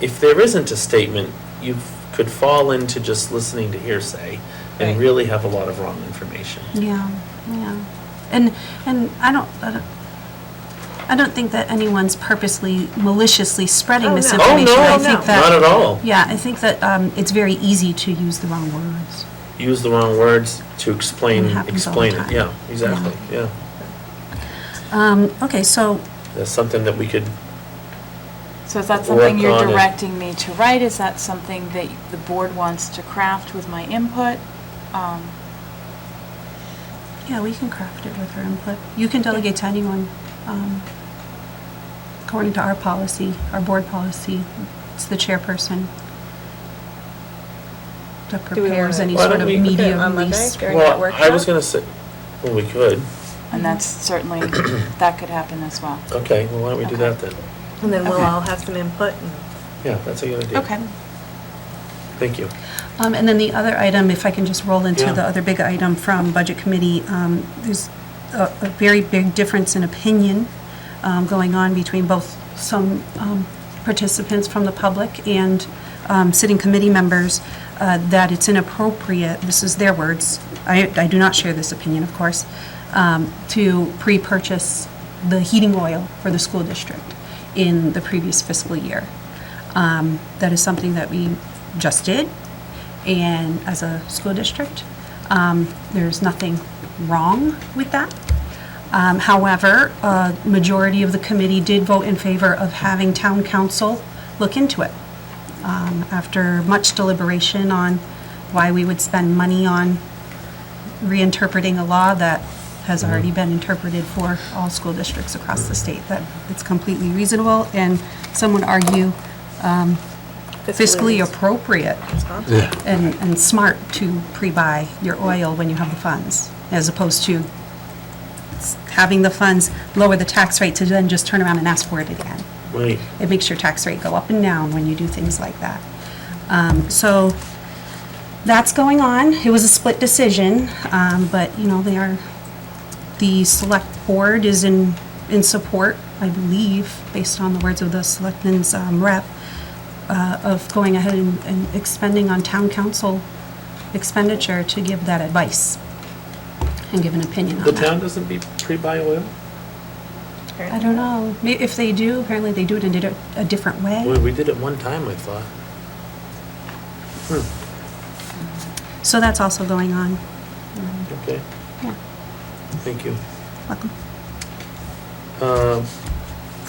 if there isn't a statement, you f- could fall into just listening to hearsay Right. and really have a lot of wrong information. Yeah, yeah. And, and I don't, I don't, I don't think that anyone's purposely maliciously spreading Oh, no. misinformation. I Oh, no, think no. that- Not at all. Yeah, I think that um, it's very easy to use the wrong words. Use the wrong words to explain, It happens all the explain it. time. Yeah, exactly, yeah. Um, Okay, so, That's something that we could, So is that Work something you're on it. directing me to write? Is that something that the board wants to craft with my input? Um, yeah, we can craft it with her input. You can delegate to anyone. um, According to our policy, our board policy, it's the chairperson that Do we prepares wanna- any Why sort don't of we put it media on Monday? release. During that well, I was workshop? gonna say, well, we could. And that's certainly, that could happen as well. Okay, well, why don't we do that then? And then we'll Okay. all have some input and. Yeah, that's a good idea. Okay. Thank you. Um, And then the other item, if I can just roll into Yeah. the other big item from Budget Committee, um, there's a a very big difference in opinion um, going on between both some um, participants from the public and um, sitting committee members, uh, that it's inappropriate, this is their words, I I do not share this opinion, of course, um, to pre-purchase the heating oil for the school district in the previous fiscal year. Um, That is something that we just did, and as a school district, um, there's nothing wrong with that. Um, However, a majority of the committee did vote in favor of having town council look into it. Um, After much deliberation on why we would spend money on reinterpreting a law that has already been interpreted for all school districts across the state, that it's completely reasonable, and some would argue fiscally appropriate responsible. and, and smart to pre-buy your oil when you have the funds, as opposed to s- having the funds lower the tax rate to then just turn around and ask for it again. Wait, It makes your tax rate go up and down when you do things like that. Um, So that's going on. It was a split decision, um, but, you know, they are, the select board is in, in support, I believe, based on the words of the selectmen's um, rep, uh, of going ahead and- and expending on town council expenditure to give that advice and give an opinion on the that. town doesn't be pre-buy oil? I don't know. May- If they do, apparently they do it in a di- a different way. Well, we did it one time, I thought. Hmm. So that's also going on. Okay, Yeah, thank you. welcome. Uh,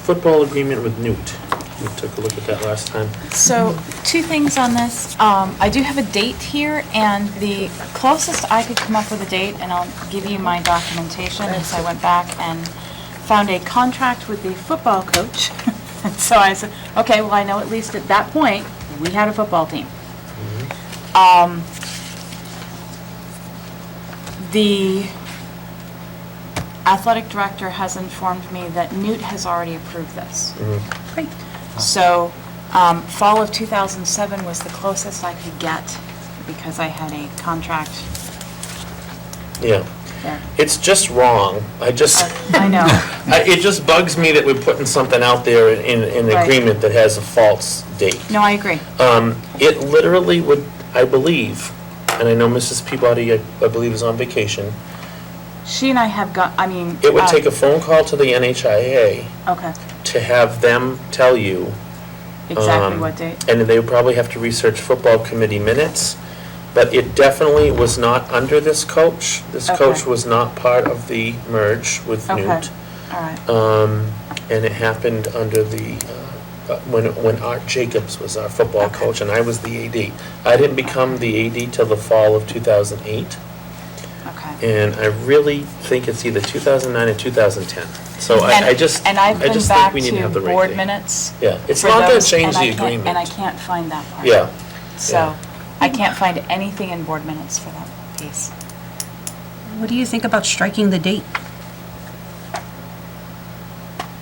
Football agreement with Newt. We took a look at that last time. So, two things on this. Um, I do have a date here, and the closest I could come up with a date, and I'll give you my documentation, is I went back and found a contract with the football coach. And so I said, okay, well, I know at least at that point, we had a football team. Um, The athletic director has informed me that Newt has already approved this. Great. So, um, fall of 2007 was the closest I could get because I had a contract Yeah, there. it's just wrong. I just, I know. I- it just bugs me that we're putting something out there in, in Right. agreement that has a false date. No, I agree. Um, It literally would, I believe, and I know Mrs. Peabody, I I believe, is on vacation, She and I have got, I mean. it would uh, take a phone call to the NHIA Okay, to have them tell you exactly Um, what date. and they would probably have to research football committee minutes, but it definitely was not under this coach. This Okay. coach was not part of the merge with Okay. Newt. All right. Um, and it happened under the, uh, uh, when, when Art Jacobs was our football Okay. coach and I was the AD. I didn't become the AD till the fall of 2008, Okay. and I really think it's either 2009 or 2010. So And- I, I just, And I I've been just think back we need to to have the right board thing. minutes. Yeah, it's for not gonna those, change and I the can't- agreement. And I can't find that part. Yeah, So, I can't find anything in board minutes for that piece. What do you think about striking the date?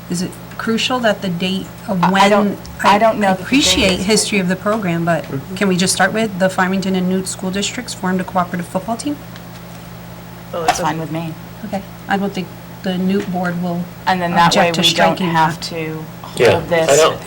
Is it crucial that the date of I- I when? don't- I don't know that the date appreciate is- history of the program, but can we just start with the Farmington and Newt School Districts formed a cooperative football team? Oh, It's it's fine with me. Okay, I don't think the Newt Board will And then that way object to we don't striking that. have to Yeah. hold this. I don't-